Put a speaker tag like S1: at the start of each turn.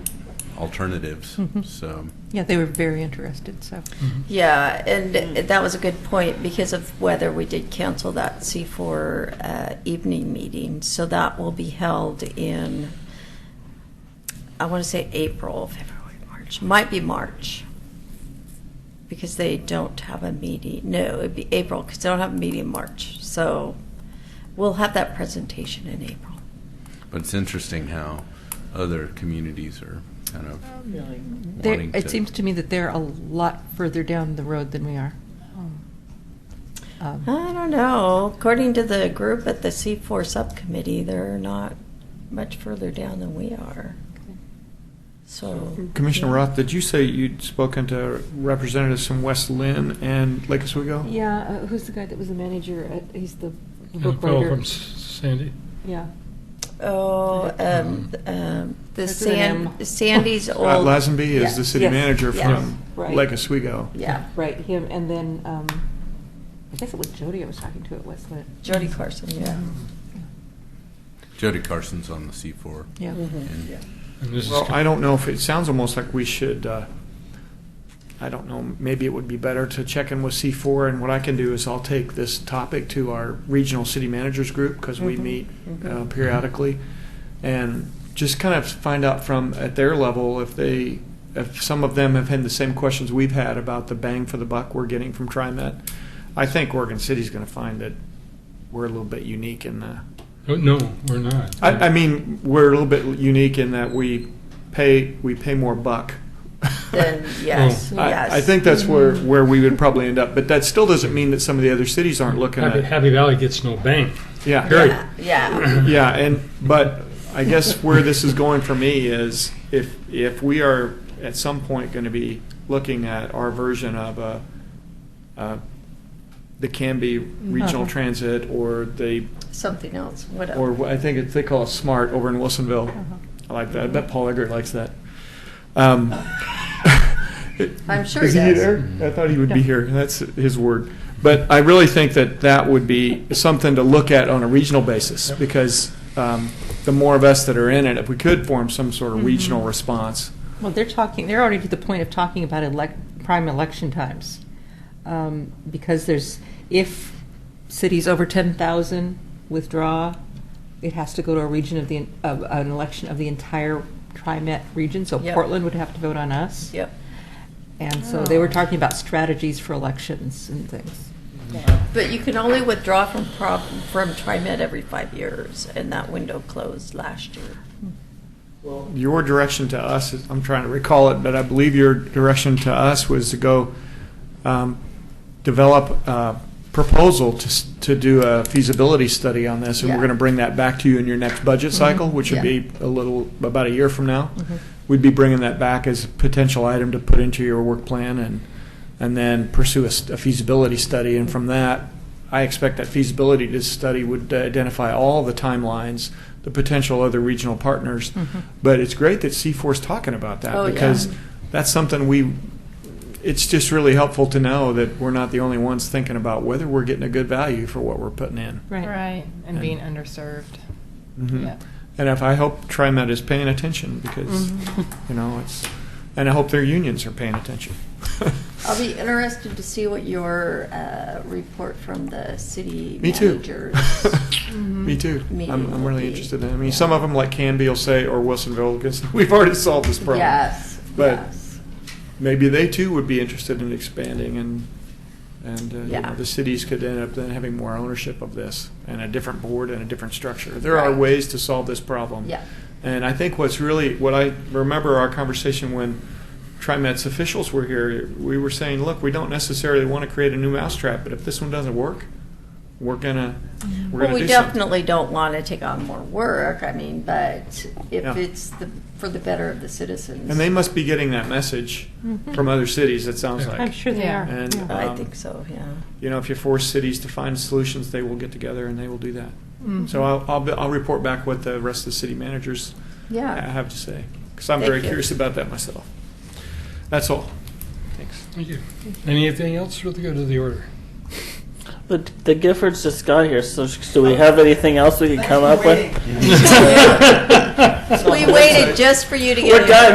S1: alternatives, so.
S2: Yeah, they were very interested, so.
S3: Mm-hmm.
S4: Yeah, and that was a good point because of weather. We did cancel that C4 uh, evening meeting, so that will be held in, I want to say April, February, March, might be March. Because they don't have a meeting, no, it'd be April, because they don't have a meeting in March. So we'll have that presentation in April.
S1: But it's interesting how other communities are kind of
S2: They're-
S1: wanting to.
S2: It seems to me that they're a lot further down the road than we are. Um,
S4: I don't know. According to the group at the C4 subcommittee, they're not much further down than we are. So,
S5: Commissioner Roth, did you say you'd spoken to representatives from West Lynn and Lake Oswego?
S3: Yeah, uh, who's the guy that was the manager? Uh, he's the
S6: And
S3: book
S6: Phil
S3: writer.
S6: from S- Sandy.
S3: Yeah.
S4: oh, um, um, the
S3: Starts with an
S4: San,
S3: M.
S4: Sandy's old.
S5: Scott Lazenby is the
S3: Yes,
S5: city
S3: yes,
S5: manager
S4: yes,
S5: from
S3: right.
S5: Lake Oswego.
S3: Yeah, right. Him, and then um, I guess it was Jody I was talking to at Westland.
S4: Jody Carson, yeah.
S3: Mm-hmm.
S1: Jody Carson's on the C4.
S2: Yeah.
S1: and-
S6: And this is
S5: Well,
S6: co-
S5: I don't know if, it sounds almost like we should, uh, I don't know, maybe it would be better to check in with C4, and what I can do is I'll take this topic to our regional city managers group, because we
S4: Mhm,
S5: meet uh,
S4: mhm.
S5: periodically, and just kind of find out from, at their level, if they, if some of them have had the same questions we've had about the bang for the buck we're getting from TriMet. I think Oregon City's going to find that we're a little bit unique in the,
S6: no, no, we're not.
S5: I, I mean, we're a little bit unique in that we pay we pay more buck.
S4: Then, yes,
S6: Oh.
S4: yes.
S5: I, I think that's where, where we would probably end up, but that still doesn't mean that some of the other cities aren't looking
S6: Happy,
S5: at.
S6: Happy Valley gets no bank.
S5: Yeah,
S6: Period.
S4: Yeah, yeah.
S5: yeah, and but I guess where this is going for me is if if we are at some point going to be looking at our version of a, uh, the Canby Regional
S2: Mhm.
S4: Uh-huh.
S5: Transit or the
S4: Something else, whatever.
S5: or what I think it's, they call it SMART over in Wilsonville.
S2: Uh-huh.
S5: I like that. I bet Paul Eggert likes that. Um,
S4: I'm sure
S5: is
S4: he does.
S5: there? I thought he would be
S2: Yeah.
S5: here. That's his word. But I really think that that would be something to look at on a regional basis
S6: Yep.
S5: because um, the more of us that are in it, if we could form some sort of
S4: Mm-hmm.
S5: regional response,
S2: Well, they're talking, they're already to the point of talking about elec prime election times. Um, because there's, if cities over 10,000 withdraw, it has to go to a region of the, of an election of the entire TriMet region. So
S4: Yep.
S2: Portland would have to vote on us.
S4: Yep.
S2: And so they were talking about strategies for elections and things.
S4: But you can only withdraw from prob, from TriMet every five years, and that window closed last year.
S5: your direction to us, is- I'm trying to recall it, but I believe your direction to us was to go um, develop a proposal to, s- to do a feasibility study on this, and we're
S4: Yeah. Mm-hmm.
S5: going to bring that back to you in your next budget cycle, which would
S4: Yeah. Mm-hmm.
S5: be a little, about a year from now.
S2: Mm-hmm.
S5: We'd be bringing that back as a potential item to put into your work plan and, and then pursue a s- a feasibility study. And from that, I expect that feasibility to study would identify all the timelines, the potential other regional partners.
S4: Mm-hmm.
S2: Mm-hmm.
S5: But it's great that C4 is talking about that
S4: Oh, yeah.
S5: because that's something we, it's just really helpful to know that we're not the only ones thinking about whether we're getting a good value for what we're putting in.
S7: Right, and being underserved.
S5: Mhm.
S7: Yeah.
S5: And if I hope TriMet is paying attention because,
S4: Mm-hmm.
S7: Mm-hmm.
S5: you know, it's, and I hope their unions are paying attention.
S4: I'll be interested to see what your uh, report from the city
S5: Me too.
S4: managers.
S5: Me too. I'm,
S4: Meeting
S5: I'm
S4: will
S5: really
S4: be-
S5: interested in it. I mean,
S4: yeah.
S5: some of them, like Canby, will say, or Wilsonville, because we've already solved this problem.
S4: Yes,
S5: But-
S4: yes.
S5: Maybe they too would be interested in expanding, and and uh, you
S4: Yeah.
S5: know, the cities could end up then having more ownership of this and a different board and a different structure. There are
S4: Right.
S5: ways to solve this problem.
S4: Yeah.
S5: And I think what's really, what I remember our conversation when TriMet's officials were here, we were saying, look, we don't necessarily want to create a new mousetrap, but if this one doesn't work, we're gonna, we're
S4: Well,
S5: gonna
S4: we
S5: do something.
S4: definitely don't want to take on more work, I mean, but
S5: Yeah.
S4: if it's the, for the better of the citizens.
S5: And they must be getting that message
S4: Mm-hmm.
S5: from other cities, it sounds
S6: Yeah.
S5: like.
S2: I'm sure they
S7: Yeah.
S2: are.
S5: And,
S2: yeah.
S4: I
S5: um,
S4: think so, yeah.
S5: you know, if you force cities to find solutions, they will get together and they will do that.
S7: Mm-hmm.
S5: So I'll, I'll, be- I'll report back what the rest of the city managers ha-
S4: Yeah.
S5: have to say, because I'm
S4: Thank
S5: very
S4: you.
S5: curious about that myself. That's all. Thanks.
S6: Thank you. Anything else for the good of the order?
S8: The, the Giffords just got here, so sh- do we have anything else we could come up with?
S4: We waited just for you to get
S8: What
S4: in.
S8: guy